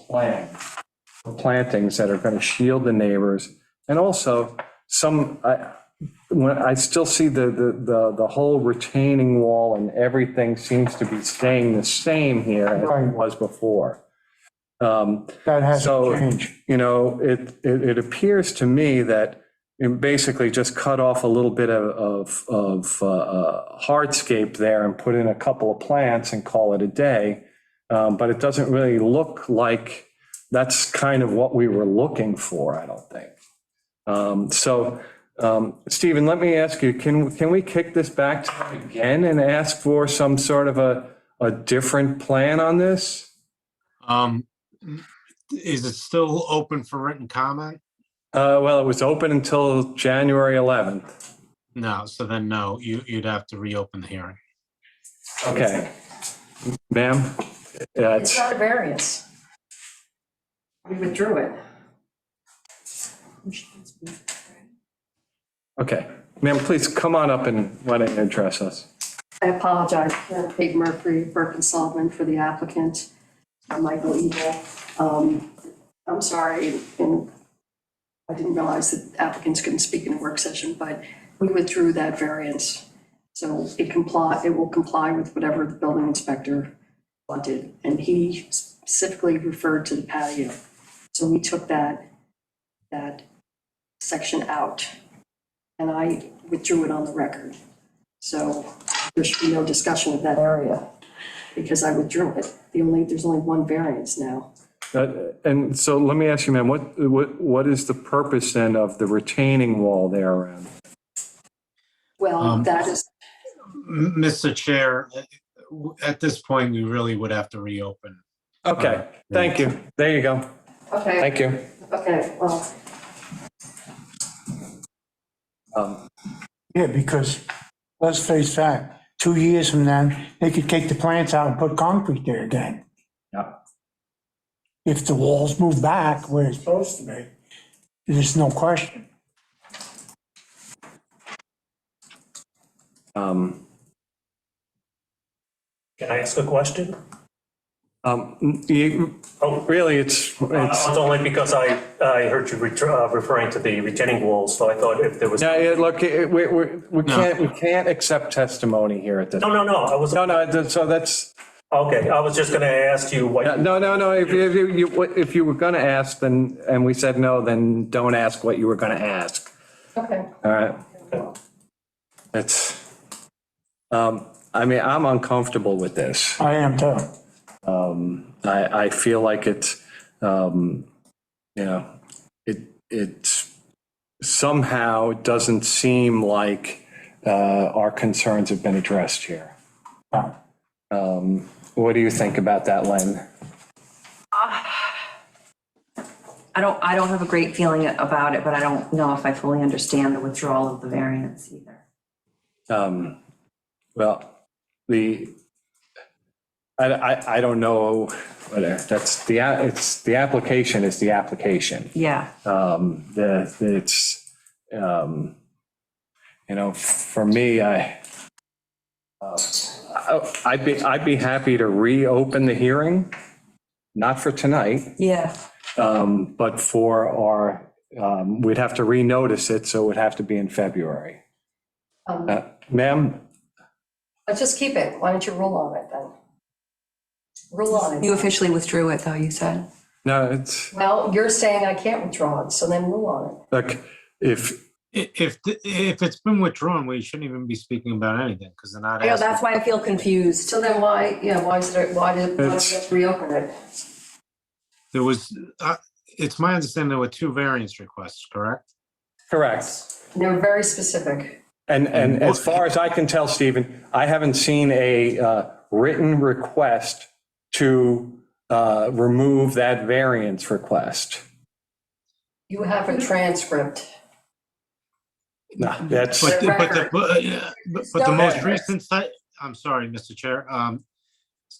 plan for plantings that are going to shield the neighbors. And also, some, I, when, I still see the, the, the, the whole retaining wall and everything seems to be staying the same here as Right. it was before. Um, That has So- to change. you know, it, it, it appears to me that it basically just cut off a little bit of, of, of uh, hardscape there and put in a couple of plants and call it a day. Um, But it doesn't really look like that's kind of what we were looking for, I don't think. Um, So, um, Stephen, let me ask you, can, can we kick this back to them again and ask for some sort of a, a different plan on this? Um, is it still open for written comment? Uh, Well, it was open until January 11th. No, so then no, you, you'd have to reopen the hearing. Okay. Ma'am? Yeah, It's it's, not a variance. We withdrew it. okay. Ma'am, please come on up and let it address us. I apologize, uh, Kate Murphy, Burke and Sullivan for the applicant, uh, Michael Evil. Um, I'm sorry, and I didn't realize that applicants couldn't speak in a work session, but we withdrew that variance. So it comply, it will comply with whatever the building inspector wanted, and he specifically referred to the patio. So we took that, that section out, and I withdrew it on the record. So there should be no discussion of that area, because I withdrew it. The only, there's only one variance now. Uh, And so let me ask you, ma'am, what, what, what is the purpose then of the retaining wall there around? Well, Um, that is, M- Mr. Chair, uh, w- at this point, we really would have to reopen. Okay, thank you. Uh, There you go. okay, Thank you. okay, well, Um, Yeah, because let's face fact, two years from now, they could take the plants out and put concrete there again. Yeah. If the walls move back where it's supposed to be, there's no question. um, Can I ask a question? um, you- Oh. Really, it's, Uh, it's, It's only because I, I heard you ret- uh, referring to the retaining wall, so I thought if there was. no, No, yeah, look, it- we, we, we can't, we can't accept testimony here at this. no, no, I was, No, no, so that's, okay, I was just gonna ask you what. Yeah, No, no, no, if you, if you- you, if you were gonna ask, then, and we said no, then don't ask what you were gonna ask, okay. all right? It's, um, I mean, I'm uncomfortable with this. I am too. I, I feel like it's, um, you know, it, it somehow doesn't seem like, uh, our concerns have been addressed here. No. Um, what do you think about that, Len? I don't, I don't have a great feeling about it, but I don't know if I fully understand the withdrawal of the variance either. Um, Well, the, I, I, I don't know, whether that's the, a- it's, the application is the application. Yeah, Um, The, it's, um, you know, for me, I, uh, I- I'd be, I'd be happy to reopen the hearing, not for tonight, yeah. um, but for our, um, we'd have to renotice it, so it would have to be in February. Um, Uh, Ma'am, Let's just keep it. Why don't you rule on it then? Rule on You it. officially withdrew it though, you said. no, it's. Well, you're saying I can't withdraw it, so then rule on it. Like, if, I- If, th- if it's been withdrawn, we shouldn't even be speaking about anything because they're not I know, asking. that's why I feel confused. So then why, yeah, why is it, why did, why did It's- we reopen it? There was, uh, it's my understanding there were two variance requests, correct? correct. And They're very specific. And, and as far as I can tell, Stephen, I haven't seen a uh, written request to uh, remove that variance request. You have a transcript. No, that's, But, The the- but, the- record. but, uh, but but the most recent site, I'm sorry, Mr. Chair, um,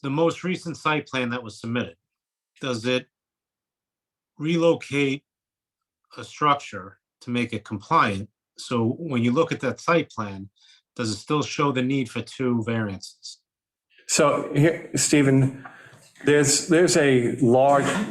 the most recent site plan that was submitted, does it relocate a structure to make it compliant? So when you look at that site plan, does it still show the need for two variances? so here, Stephen, there's, there's a large